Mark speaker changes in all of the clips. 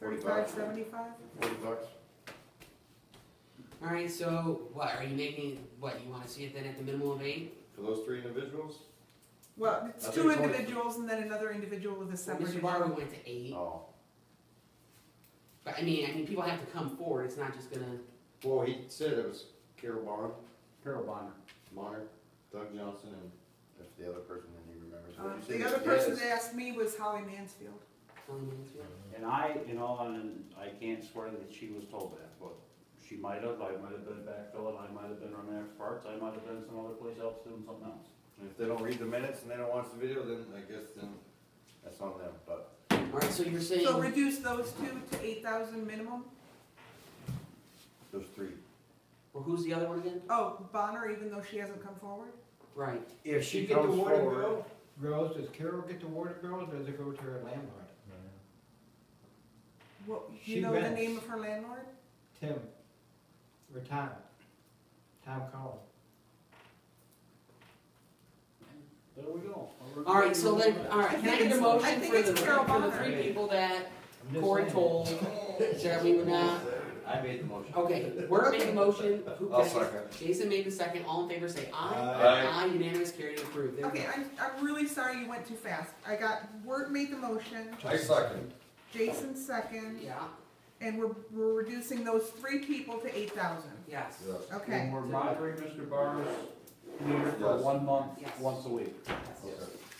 Speaker 1: Forty-five.
Speaker 2: Forty-five, seventy-five?
Speaker 1: Forty bucks?
Speaker 3: All right, so what are you making? What you want to see it then at the minimum of eight?
Speaker 1: For those three individuals?
Speaker 2: Well, it's
Speaker 1: I think
Speaker 2: two
Speaker 1: it's only-
Speaker 2: individuals and then another individual with a
Speaker 3: So
Speaker 2: separate.
Speaker 3: Mr. Barber went to eight,
Speaker 1: Oh.
Speaker 3: but I mean, I mean, people have to come forward. It's not just gonna.
Speaker 1: Well, he said it was Carol Bonner,
Speaker 4: Carol Bonner.
Speaker 1: Bonner, Doug Johnson, and if the other person that he remembers.
Speaker 2: Uh,
Speaker 1: What you
Speaker 2: The
Speaker 1: said
Speaker 2: other
Speaker 1: was
Speaker 2: person
Speaker 1: yes.
Speaker 2: that asked me was Holly Mansfield.
Speaker 3: Only Mansfield.
Speaker 4: And I, in all, hon- I can't swear that she was told that, but she might have, I might have been backfilling, I might have been running extra parts, I might have been some other place else doing something else.
Speaker 1: And If they don't read the minutes and they don't watch the video, then I guess then that's on them, but
Speaker 3: All right, so you're saying.
Speaker 2: So reduce those two to eight thousand minimum?
Speaker 1: those three.
Speaker 3: well, who's the other one again?
Speaker 2: Oh, Bonner, even though she hasn't come forward?
Speaker 3: Right.
Speaker 5: If
Speaker 1: You
Speaker 5: she
Speaker 1: get the
Speaker 5: comes
Speaker 1: water
Speaker 5: forward, girls, does Carol get the water bill, or does it go to her landlord?
Speaker 2: What, you
Speaker 5: She
Speaker 2: know the
Speaker 5: rents.
Speaker 2: name of her landlord?
Speaker 5: Tim, or Tom, Tom Cullen.
Speaker 4: There we go.
Speaker 3: All right, so um, then, all
Speaker 2: I
Speaker 3: right, can I
Speaker 2: think
Speaker 3: get a
Speaker 2: it's- I
Speaker 3: motion
Speaker 2: think
Speaker 3: for
Speaker 2: it's
Speaker 3: the,
Speaker 2: Carol
Speaker 3: for the
Speaker 2: Bonner.
Speaker 3: three people that
Speaker 5: I'm just
Speaker 3: Corey
Speaker 5: saying.
Speaker 3: told that we would not?
Speaker 1: I made the motion.
Speaker 3: Okay, we're making a motion. Who
Speaker 1: I'll
Speaker 3: can I-
Speaker 1: second.
Speaker 3: Jason made the second. All in favor, say aye.
Speaker 1: Aye.
Speaker 3: unanimous, carried, and approved. There we
Speaker 2: Okay,
Speaker 3: go.
Speaker 2: I'm, I'm really sorry you went too fast. I got, Word made the motion,
Speaker 1: I second.
Speaker 2: Jason second,
Speaker 3: Yeah.
Speaker 2: and we're, we're reducing those three people to eight thousand.
Speaker 3: Yes.
Speaker 1: Yes.
Speaker 2: Okay,
Speaker 4: And we're monitoring Mr. Barnes here for
Speaker 1: Yes.
Speaker 4: one month,
Speaker 3: Yes.
Speaker 4: once a week.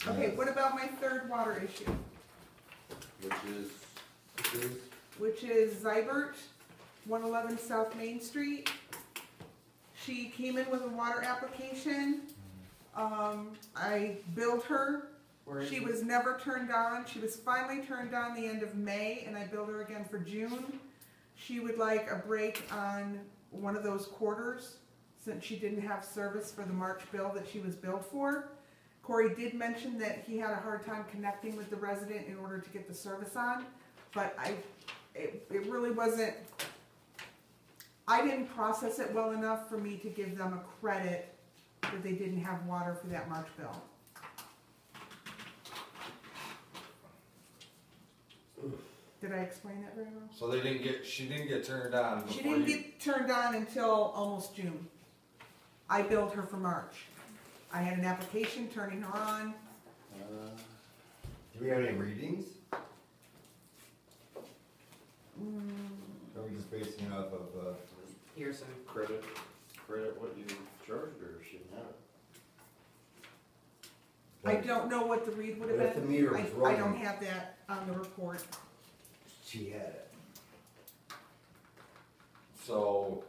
Speaker 1: Okay.
Speaker 2: okay, what about my third water issue,
Speaker 1: Which is, which is,
Speaker 2: which is Zybert, one eleven South Main Street. She came in with a water application. Um, I billed her
Speaker 3: Where is
Speaker 2: She
Speaker 3: it?
Speaker 2: was never turned on. She was finally turned on the end of May, and I billed her again for June. She would like a break on one of those quarters, since she didn't have service for the March bill that she was billed for. Corey did mention that he had a hard time connecting with the resident in order to get the service on, but I, it, it really wasn't, I didn't process it well enough for me to give them a credit that they didn't have water for that March bill. Did I explain that very well?
Speaker 6: So they didn't get, she didn't get turned on
Speaker 2: She
Speaker 6: before
Speaker 2: didn't
Speaker 6: you.
Speaker 2: get turned on until almost June. I billed her for March. I had an application turning her on.
Speaker 1: uh, do we have any readings?
Speaker 2: Hmm.
Speaker 6: Are we just basing it off of, uh,
Speaker 3: Here, so.
Speaker 1: Credit, credit what you charged her, she didn't have it.
Speaker 2: I don't know what the read would have
Speaker 6: But if the
Speaker 2: been.
Speaker 6: meter
Speaker 2: I,
Speaker 6: was
Speaker 2: I don't
Speaker 6: running,
Speaker 2: have that on the report.
Speaker 6: she had it. So,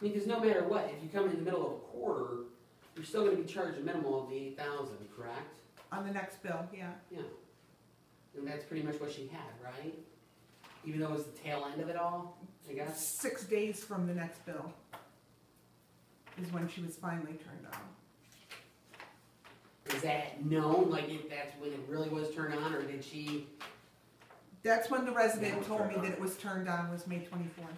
Speaker 3: I mean, because no matter what, if you come in the middle of a quarter, you're still going to be charged a minimum of the eight thousand, correct?
Speaker 2: On the next bill, yeah.
Speaker 3: Yeah. And that's pretty much what she had, right? Even though it was the tail end of it all, I guess.
Speaker 2: Six days from the next bill is when she was finally turned on.
Speaker 3: Is that known? Like, if that's when it really was turned on, or did she?
Speaker 2: That's when the resident
Speaker 1: Yeah,
Speaker 2: told me
Speaker 1: turned
Speaker 2: that
Speaker 1: on.
Speaker 2: it was turned on, was May twenty-fourth.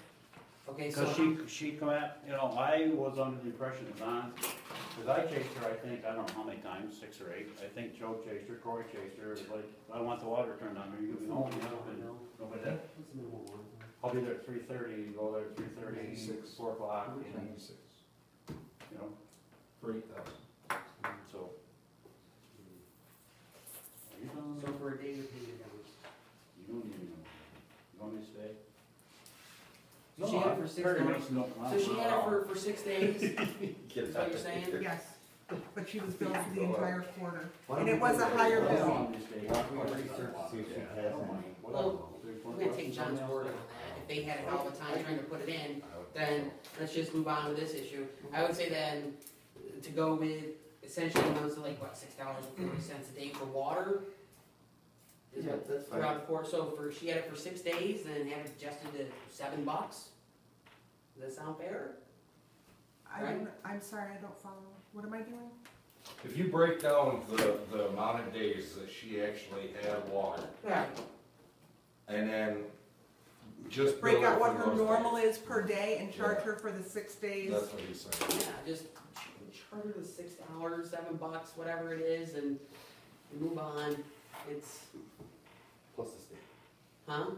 Speaker 3: Okay, so
Speaker 4: Cause she, she come out, you know, I was under the impression that Don, cause I chased her, I think, I don't know how many times, six or eight. I think Joe chased her, Corey chased her, it was like, I want the water turned on, are you gonna be home?
Speaker 3: I
Speaker 4: And
Speaker 3: know.
Speaker 4: Nobody did.
Speaker 3: What's the minimum one?
Speaker 4: I'll be there at three thirty, go there at three thirty,
Speaker 6: Six.
Speaker 4: four o'clock, and,
Speaker 6: six,
Speaker 4: you know,
Speaker 6: for eight thousand.
Speaker 4: so. Are you
Speaker 3: So
Speaker 4: gonna,
Speaker 3: for a day, you're paying it down.
Speaker 4: you don't even know. You want me to stay?
Speaker 3: So she had it for six
Speaker 4: Perry
Speaker 3: months.
Speaker 4: Mason don't
Speaker 3: So
Speaker 4: mind.
Speaker 3: she had it for, for six days.
Speaker 1: Get
Speaker 3: Is that what you're
Speaker 1: that.
Speaker 3: saying?
Speaker 2: Yes, but she was billed for the
Speaker 1: Go up.
Speaker 2: entire quarter.
Speaker 1: Why
Speaker 2: And
Speaker 1: don't
Speaker 2: it
Speaker 1: we
Speaker 2: was
Speaker 1: do
Speaker 2: a
Speaker 1: that?
Speaker 2: higher
Speaker 1: Why don't
Speaker 2: bill.
Speaker 1: Why don't we research, see if she
Speaker 4: Yeah, I
Speaker 1: has
Speaker 4: don't
Speaker 1: any?
Speaker 4: mind.
Speaker 3: Well,
Speaker 4: Whatever. There's one
Speaker 3: I'm gonna take
Speaker 4: question,
Speaker 3: John's
Speaker 4: somebody
Speaker 3: word on
Speaker 4: else.
Speaker 3: that. If they had it all the time trying to put it in,
Speaker 1: I would-
Speaker 3: then let's just move on to this issue. I would say then, to go with essentially amounts of like, what, six dollars and forty cents a day for water? Is
Speaker 1: Yeah,
Speaker 3: what
Speaker 1: that's fine.
Speaker 3: throughout the course, so for, she had it for six days, then had it adjusted to seven bucks? Does that sound fair?
Speaker 2: I don't, I'm sorry, I don't follow. What am I doing?
Speaker 6: If you break down the, the amount of days that she actually had water,
Speaker 3: Right.
Speaker 6: and then just.
Speaker 2: break
Speaker 6: bill
Speaker 2: out what
Speaker 6: for
Speaker 2: her
Speaker 6: those
Speaker 2: normal
Speaker 6: days.
Speaker 2: is per day and charge
Speaker 6: Yeah.
Speaker 2: her for the six days.
Speaker 6: That's what he's
Speaker 3: Yeah,
Speaker 6: saying.
Speaker 3: just ch- charge her the six dollars, seven bucks, whatever it is, and move on. It's,
Speaker 1: Plus the state.
Speaker 3: huh?